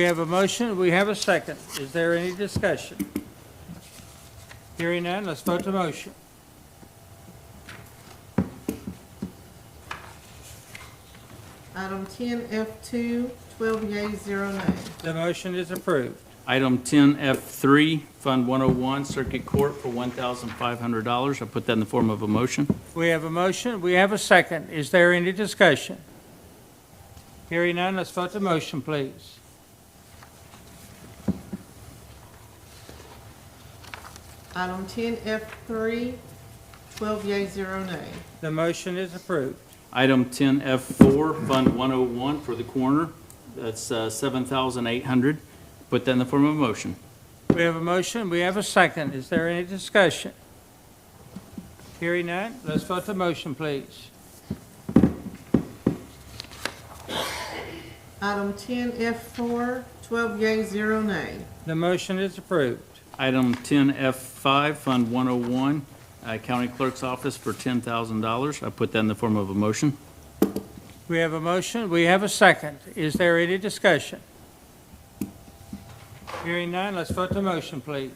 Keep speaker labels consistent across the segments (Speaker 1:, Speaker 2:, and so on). Speaker 1: We have a motion, we have a second. Is there any discussion? Hearing none, let's vote the motion.
Speaker 2: Item ten F two, twelve yea, zero nay.
Speaker 1: The motion is approved.
Speaker 3: Item 10F3, Fund 101, Circuit Court for $1,500. I put that in the form of a motion.
Speaker 1: We have a motion, we have a second. Is there any discussion? Hearing none, let's vote the motion, please.
Speaker 2: Item ten F three, twelve yea, zero nay.
Speaker 1: The motion is approved.
Speaker 3: Item 10F4, Fund 101 for the coroner, that's uh, $7,800. Put that in the form of a motion.
Speaker 1: We have a motion, we have a second. Is there any discussion? Hearing none, let's vote the motion, please.
Speaker 2: Item ten F four, twelve yea, zero nay.
Speaker 1: The motion is approved.
Speaker 3: Item 10F5, Fund 101, uh, County Clerk's Office for $10,000. I put that in the form of a motion.
Speaker 1: We have a motion, we have a second. Is there any discussion? Hearing none, let's vote the motion, please.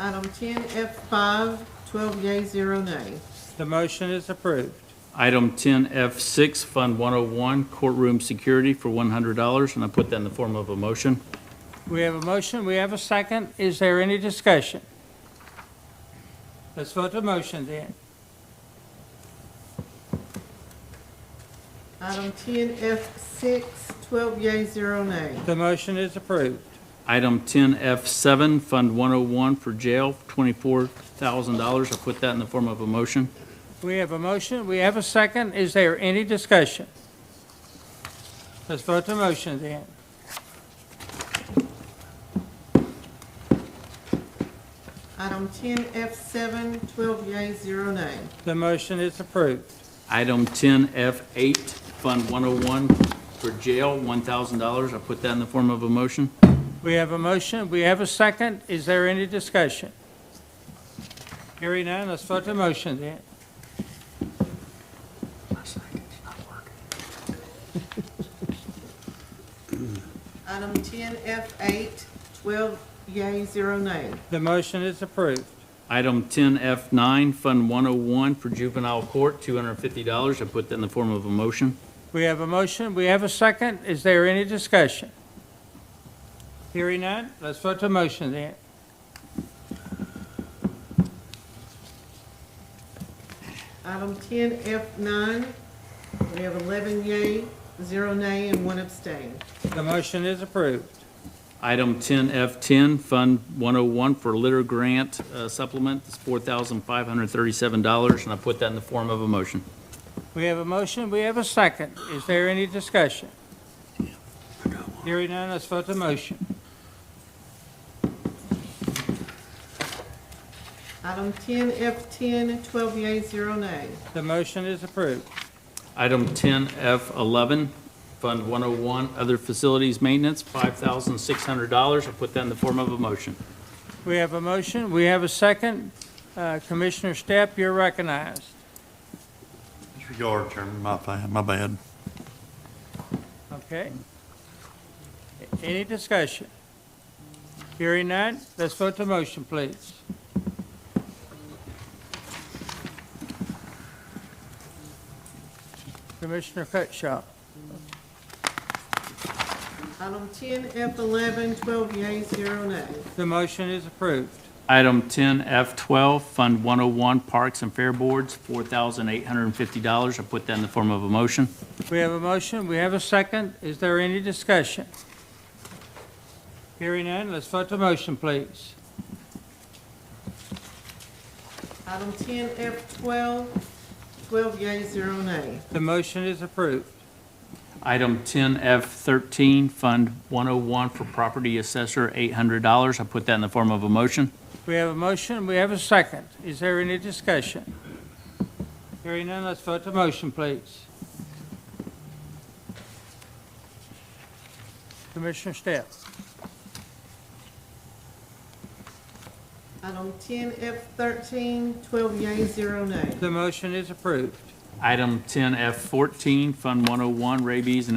Speaker 2: Item ten F five, twelve yea, zero nay.
Speaker 1: The motion is approved.
Speaker 3: Item 10F6, Fund 101, Courtroom Security for $100, and I put that in the form of a motion.
Speaker 1: We have a motion, we have a second. Is there any discussion? Let's vote the motion then.
Speaker 2: Item ten F six, twelve yea, zero nay.
Speaker 1: The motion is approved.
Speaker 3: Item 10F7, Fund 101 for jail, $24,000. I put that in the form of a motion.
Speaker 1: We have a motion, we have a second. Is there any discussion? Let's vote the motion then.
Speaker 2: Item ten F seven, twelve yea, zero nay.
Speaker 1: The motion is approved.
Speaker 3: Item 10F8, Fund 101 for jail, $1,000. I put that in the form of a motion.
Speaker 1: We have a motion, we have a second. Is there any discussion? Hearing none, let's vote the motion then.
Speaker 2: Item ten F eight, twelve yea, zero nay.
Speaker 1: The motion is approved.
Speaker 3: Item 10F9, Fund 101 for juvenile court, $250. I put that in the form of a motion.
Speaker 1: We have a motion, we have a second. Is there any discussion? Hearing none, let's vote the motion then.
Speaker 2: Item ten F nine, we have eleven yea, zero nay, and one abstain.
Speaker 1: The motion is approved.
Speaker 3: Item 10F10, Fund 101 for litter grant uh, supplement, it's $4,537. And I put that in the form of a motion.
Speaker 1: We have a motion, we have a second. Is there any discussion? Hearing none, let's vote the motion.
Speaker 2: Item ten F 10 12 yea, zero nay.
Speaker 1: The motion is approved.
Speaker 3: Item 10F11, Fund 101, Other Facilities Maintenance, $5,600. I'll put that in the form of a motion.
Speaker 1: We have a motion, we have a second. Uh, Commissioner Stepp, you're recognized.
Speaker 4: Disregard, Chairman, my, fa- my bad.
Speaker 1: Okay. Any discussion? Hearing none, let's vote the motion, please. Commissioner Cutshaw,
Speaker 2: Item ten F 11 12 yea, zero nay.
Speaker 1: the motion is approved.
Speaker 3: Item 10F12, Fund 101, Parks and Fair Boards, $4,850. I'll put that in the form of a motion.
Speaker 1: We have a motion, we have a second. Is there any discussion? Hearing none, let's vote the motion, please.
Speaker 2: Item ten F 12 12 yea, zero nay.
Speaker 1: The motion is approved.
Speaker 3: Item 10F13, Fund 101 for Property Assessor, $800. I'll put that in the form of a motion.
Speaker 1: We have a motion, we have a second. Is there any discussion? Hearing none, let's vote the motion, please. Commissioner Stepp,
Speaker 2: Item ten F 13 12 yea, zero nay.
Speaker 1: the motion is approved.
Speaker 3: Item 10F14, Fund 101, Rabies and